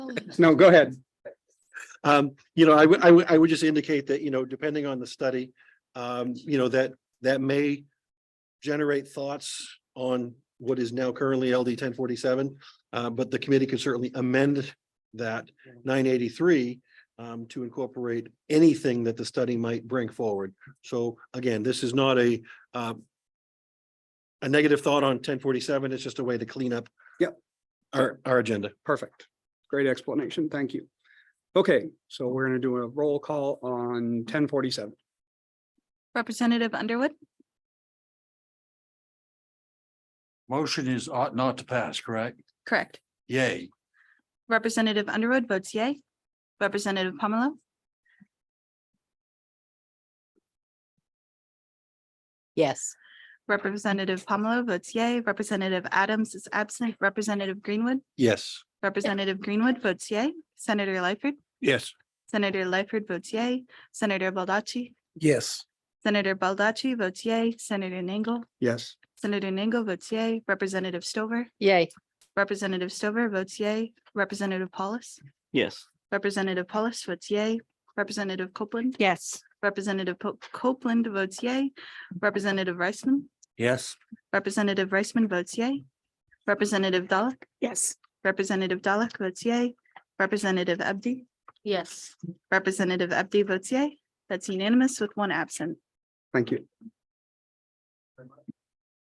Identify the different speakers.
Speaker 1: No, go ahead.
Speaker 2: Um, you know, I would, I would, I would just indicate that, you know, depending on the study, um, you know, that, that may generate thoughts on what is now currently LD ten forty-seven. Uh, but the committee could certainly amend that nine eighty-three um, to incorporate anything that the study might bring forward. So again, this is not a, um, a negative thought on ten forty-seven. It's just a way to clean up
Speaker 1: Yep.
Speaker 2: our, our agenda.
Speaker 1: Perfect. Great explanation. Thank you. Okay, so we're gonna do a roll call on ten forty-seven.
Speaker 3: Representative Underwood,
Speaker 4: Motion is ought not to pass, correct?
Speaker 3: correct.
Speaker 4: Yay.
Speaker 3: Representative Underwood votes yay. Representative Pomelo,
Speaker 5: Yes.
Speaker 3: Representative Pomelo votes yay. Representative Adams is absent. Representative Greenwood,
Speaker 2: Yes.
Speaker 3: Representative Greenwood votes yay. Senator Lightford,
Speaker 2: Yes.
Speaker 3: Senator Lightford votes yay. Senator Baldacci,
Speaker 4: Yes.
Speaker 3: Senator Baldacci votes yay. Senator Nangle,
Speaker 1: Yes.
Speaker 3: Senator Nangle votes yay. Representative Stover,
Speaker 5: Yay.
Speaker 3: Representative Stover votes yay. Representative Paulus,
Speaker 6: yes,
Speaker 3: Representative Paulus votes yay. Representative Copeland,
Speaker 5: Yes.
Speaker 3: Representative Po- Copeland votes yay. Representative Reisman,
Speaker 4: Yes.
Speaker 3: Representative Reisman votes yay. Representative Dalek,
Speaker 5: Yes.
Speaker 3: Representative Dalek votes yay. Representative Abdi,
Speaker 5: Yes.
Speaker 3: Representative Abdi votes yay. That's unanimous with one absent.
Speaker 1: Thank you.